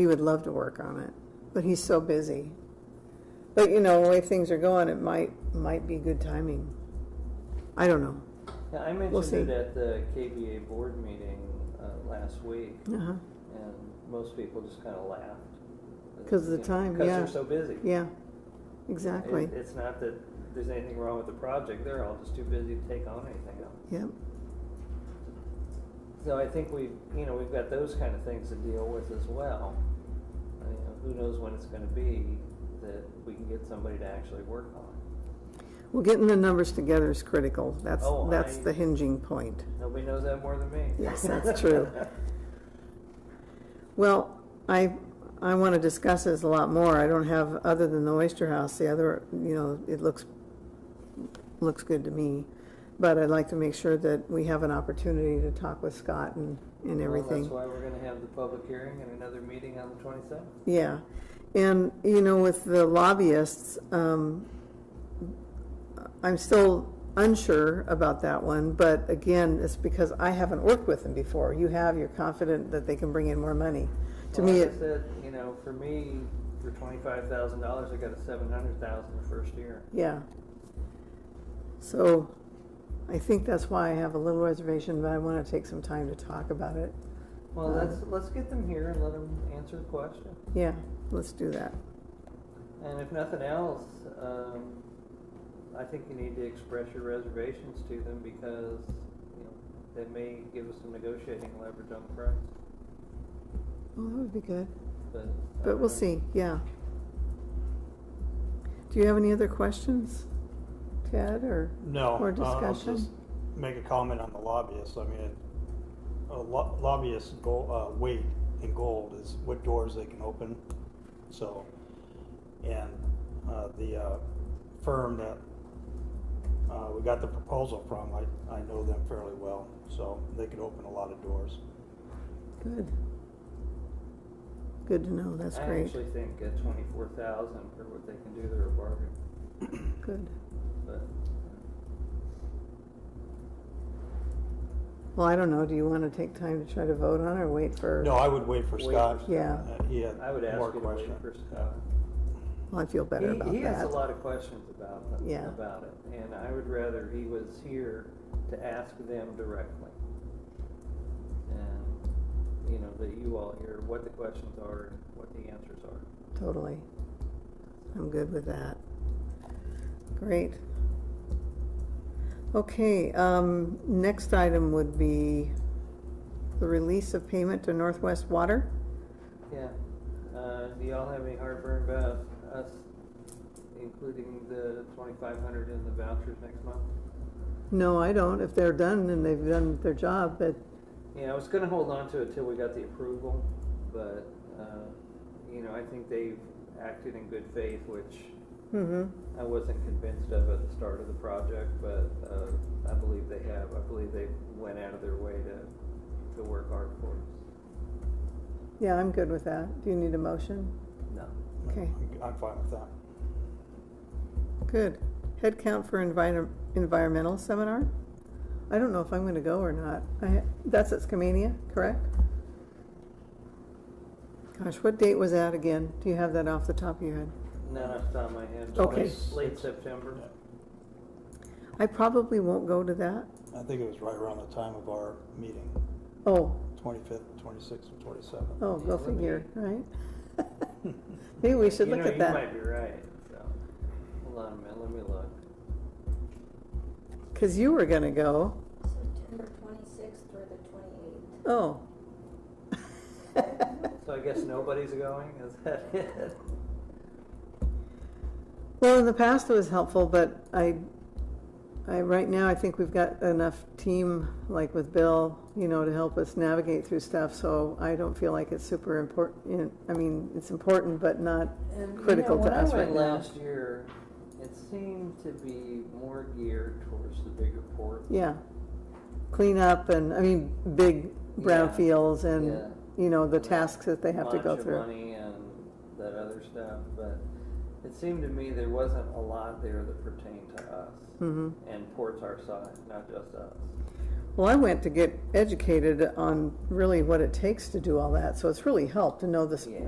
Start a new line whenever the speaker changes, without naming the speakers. He would love to work on it, but he's so busy. But you know, the way things are going, it might, might be good timing. I don't know.
Yeah, I
see.
mentioned it at the KBA board meeting uh, last week,
Uh-huh.
and most people just kind of laughed.
'Cause of the time,
Because
yeah.
they're so busy.
Yeah,
It-
exactly.
It's not that there's anything wrong with the project, they're all just too busy to take on anything else.
Yep.
So I think we've, you know, we've got those kind of things to deal with as well. I mean, who knows when it's gonna be that we can get somebody to actually work on.
Well, getting the numbers together is critical. That's,
Oh,
that's
I-
the hinging point.
Nobody knows that more than me.
Yes, that's true. Well, I, I want to discuss this a lot more. I don't have, other than the Oyster House, the other, you know, it looks, looks good to me. But I'd like to make sure that we have an opportunity to talk with Scott and, and
Well,
everything.
Oh, that's why we're gonna have the public hearing and another meeting on the twenty-seventh.
Yeah, and, you know, with the lobbyists, um, I'm still unsure about that one, but again, it's because I haven't worked with them before. You have, you're confident that they can bring in more money. To
Well,
me,
like I
it-
said, you know, for me, for twenty-five thousand dollars, I got a seven hundred thousand the first year.
yeah. So, I think that's why I have a little reservation, but I want to take some time to talk about it.
Well,
Uh,
let's, let's get them here and let them answer the question.
Yeah, let's do that.
And if nothing else, um, I think you need to express your reservations to them because, you know, they may give us some negotiating leverage on the price,
Well, Oh, that would be good,
but. um, I
but
don't know.
we'll see, yeah. Do you have any other questions, Ted, or?
No.
Or
uh, I'll
discussion?
just Make a comment on the lobbyists. I mean, a lo- lobbyist's goal, uh, weight in gold is what doors they can open. So, and, uh, the, uh, firm that, uh, we got the proposal from, I, I know them fairly well, so they could open a lot of doors.
Good. Good to know, that's
I
great,
actually think at twenty-four thousand for what they can do, they're a bargain,
good.
but
Well, I don't know, do you want to take time to try to vote on it or wait for?
No, I would wait for
Wait
Scott.
for
Yeah.
Uh, He had
I would ask
more
you to wait
questions.
for Scott.
Well, I feel better
He-
about
He has a
that.
lot of questions about,
Yeah.
about it, and I would rather he was here to ask them directly. And, you know, that you all hear what the questions are and what the answers are.
Totally. I'm good with that. Great. Okay, um, next item would be the release of payment to Northwest Water.
Yeah, uh, do y'all have any heartburn about us including the twenty-five hundred in the vouchers next month?
No, I don't, if they're done and they've done their job, but,
Yeah, I was gonna hold on to it till we got the approval, but, uh, you know, I think they've acted in good faith, which
hmm
I wasn't convinced of at the start of the project, but uh, I believe they have. I believe they went out of their way to, to work hard for us.
yeah, I'm good with that. Do you need a motion?
No.
Okay.
I'm- I'm fine with that.
Good. Headcount for envir- environmental seminar? I don't know if I'm going to go or not. I, that's at Skamania, correct? Gosh, what date was that again? Do you have that off the top of your head?
Not off the top of my head. but
Okay.
it's Late September.
I probably won't go to that.
I think it was right around the time of our meeting,
Oh,
twenty-fifth, twenty-sixth, and twenty-seventh.
oh, go
Yeah, let me-
figure, right? Maybe we should
You
look
know,
at that.
You might be right, so. Hold on a minute, let me look.
Because you were going to go.
September twenty-sixth through the twenty-eighth.
Oh.
So I guess nobody's going, is that it?
Well, in the past it was helpful, but I, I, right now, I think we've got enough team, like with Bill, you know, to help us navigate through stuff, so I don't feel like it's super important, I mean, it's important, but not,
And, you
Critical
know,
to
when I
us
went
right now.
Last year, it seemed to be more geared towards the bigger port.
yeah. Clean up and, I mean, big brownfields
Yeah.
and, you know, the
And that
tasks that they have to
bunch
go
of
through.
money and that other stuff, but it seemed to me there wasn't a lot there that pertained to us
hmm
and ports our size, not just us.
Well, I went to get educated on really what it takes to do all that, so it's really helped to know this,
Yeah.